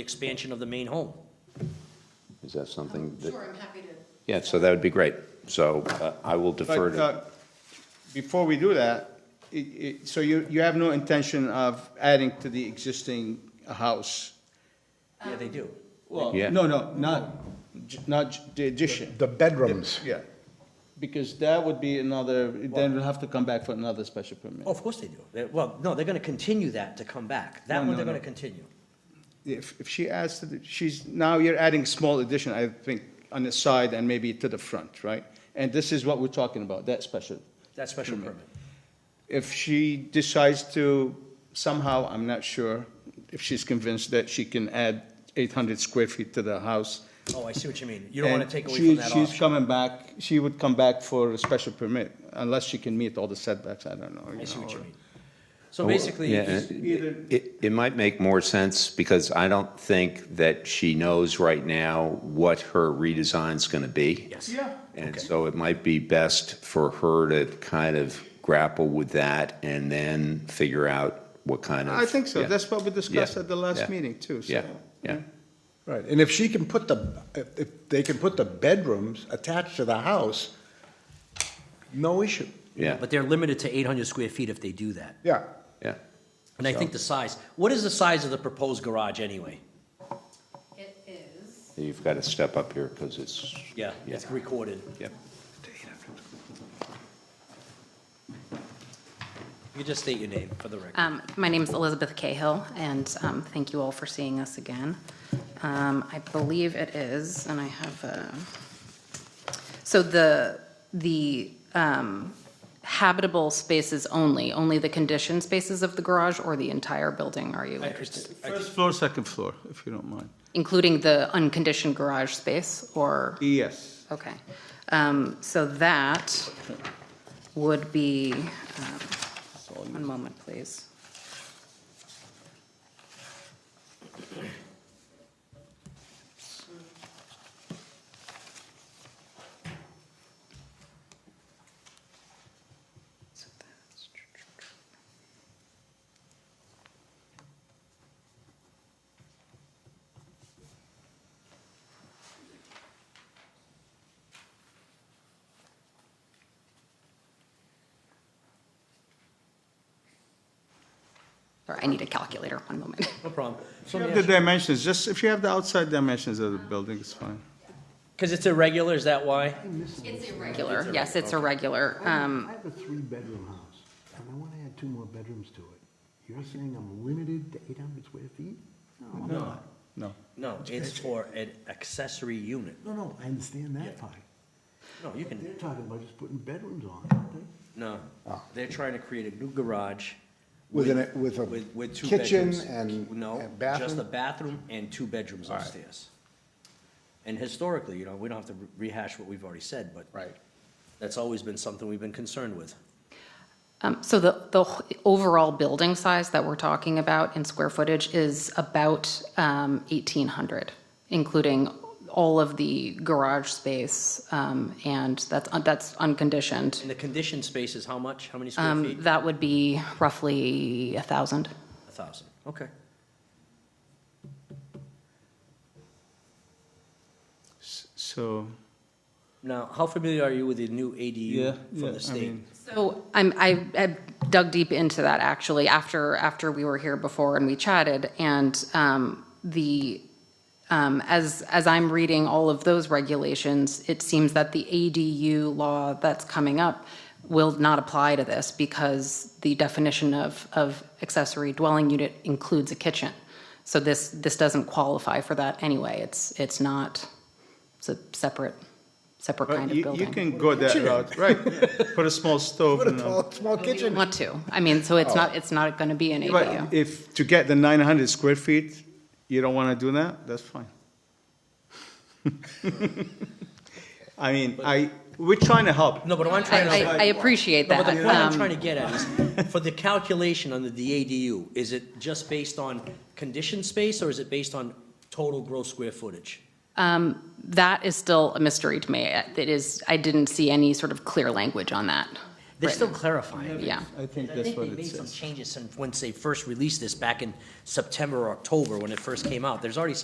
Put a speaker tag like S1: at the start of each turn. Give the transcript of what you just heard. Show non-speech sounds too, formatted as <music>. S1: expansion of the main home.
S2: Is that something that,
S3: Um, Sure, I'm happy to.
S2: yeah, so that would be great. So uh, I will defer
S4: But
S2: to,
S4: uh, before we do that, i- i- so you, you have no intention of adding to the existing house?
S1: Yeah, they do.
S4: Well,
S2: Yeah.
S4: No, no, not, j- not j- the addition,
S5: The bedrooms.
S4: yeah. Because that would be another, then we'll have to come back for another special permit.
S1: Oh, Of course they do. They- Well, no, they're gonna continue that to come back. That
S4: No,
S1: one
S4: no,
S1: they're gonna
S4: no.
S1: continue.
S4: If, if she adds to the, she's, now you're adding small addition, I think, on the side and maybe to the front, right? And this is what we're talking about, that special.
S1: That special permit.
S4: if she decides to somehow, I'm not sure, if she's convinced that she can add 800 square feet to the house.
S1: Oh, I see what you mean. You don't wanna
S4: and
S1: take away
S4: she-
S1: from that
S4: She's
S1: option.
S4: coming back, she would come back for a special permit, unless she can meet all the setbacks, I don't know.
S1: I see
S4: know,
S1: what you
S4: or-
S1: mean. So basically,
S2: yeah,
S1: it's-
S4: either-
S2: it, it- it might make more sense because I don't think that she knows right now what her redesign's going to be.
S1: yes.
S2: And so it might be best for her to kind of grapple with that and then figure out what kind of.
S4: I think so,
S2: yeah.
S4: that's what we discussed
S2: Yeah,
S4: at the last
S2: yeah,
S4: meeting, too, so.
S2: Yeah, yeah.
S5: Right, and if she can put the, if- if they can put the bedrooms attached to the house, no issue.
S2: Yeah,
S1: But they're limited to eight hundred square feet if they do that.
S5: Yeah,
S2: yeah.
S1: And I think the size, what is the size of the proposed garage anyway?
S3: It is,
S2: You've got to step up here because it's,
S1: Yeah, it's
S2: Yeah.
S1: recorded.
S2: yeah.
S1: You just state your name for the record.
S3: Um, My name is Elizabeth Cahill, and um, thank you all for seeing us again. Um, I believe it is, and I have, uh, so the, the um, habitable spaces only, only the conditioned spaces of the garage or the entire building, are
S1: Uh,
S3: you interested?
S4: First floor, second floor, if you don't mind.
S3: Including the unconditioned garage space, or?
S4: Yes.
S3: Okay, um, so that would be, um, one moment, please. Sorry, I need a calculator, one moment.
S1: No problem. So
S4: If you have
S1: let me
S4: the
S1: ask you-
S4: dimensions, just if you have the outside dimensions of the building, it's fine.
S1: Cause it's irregular, is that why?
S3: It's irregular. Yes, it's irregular, um,
S6: I have a three-bedroom house, and I want to add two more bedrooms to it. You're saying I'm limited to 800 square feet? No, I'm not.
S4: No.
S1: No, it's for an accessory unit.
S6: No, no, I understand that part.
S1: No, you
S6: They're
S1: can,
S6: talking about just putting bedrooms on, aren't they?
S1: no.
S4: Ah.
S1: They're trying to create a new garage.
S5: With an- with a
S1: with- with two
S5: kitchen
S1: bedrooms.
S5: and-
S1: No,
S5: and
S1: just
S5: bathroom?
S1: a bathroom and two bedrooms upstairs. And historically, you know, we don't have to re- rehash what we've already said, but.
S5: Right.
S1: That's always been something we've been concerned with.
S3: Um, So the, the h- overall building size that we're talking about in square footage is about um, 1,800, including all of the garage space, um, and that's, that's unconditioned.
S1: And the conditioned space is how much? How many square feet?
S3: Um, That would be roughly 1,000.
S1: A thousand, okay.
S4: So,
S1: Now, how familiar are you with the new
S4: yeah,
S1: ADU
S4: yeah,
S1: from the
S4: I
S1: state?
S4: mean,
S3: So I'm, I I dug deep into that actually after, after we were here before and we chatted. And um, the, um, as, as I'm reading all of those regulations, it seems that the ADU law that's coming up will not apply to this because the definition of, of accessory dwelling unit includes a kitchen. So this, this doesn't qualify for that anyway. It's, it's not, it's a separate, separate
S4: but
S3: kind of
S4: you,
S3: building.
S4: you can go that route, right? Put a small stove
S5: put
S4: and
S5: a
S4: a
S5: tall- small
S3: If you
S5: kitchen.
S3: want to. I mean, so
S1: Oh.
S3: it's not, it's not gonna be an
S4: But
S3: ADU.
S4: if, to get the nine hundred square feet, you don't wanna do that, that's fine. <laughs> I mean, I, we're trying to help.
S1: No, but what I'm
S3: I,
S1: trying to.
S3: I, I appreciate
S1: No,
S3: that.
S1: but the point
S3: Um,
S1: I'm trying to get at
S3: <laughs>
S1: is, for the calculation under the ADU, is it just based on conditioned space, or is it based on total gross square footage?
S3: That is still a mystery to me. It is, I didn't see any sort of clear language on that.
S1: They're still clarifying.
S3: Yeah.
S4: I think
S1: I
S4: that's
S1: think
S4: what
S1: they
S4: it
S1: made some
S4: says.
S1: changes since, once they first released this back in September or October, when it first came out. There's already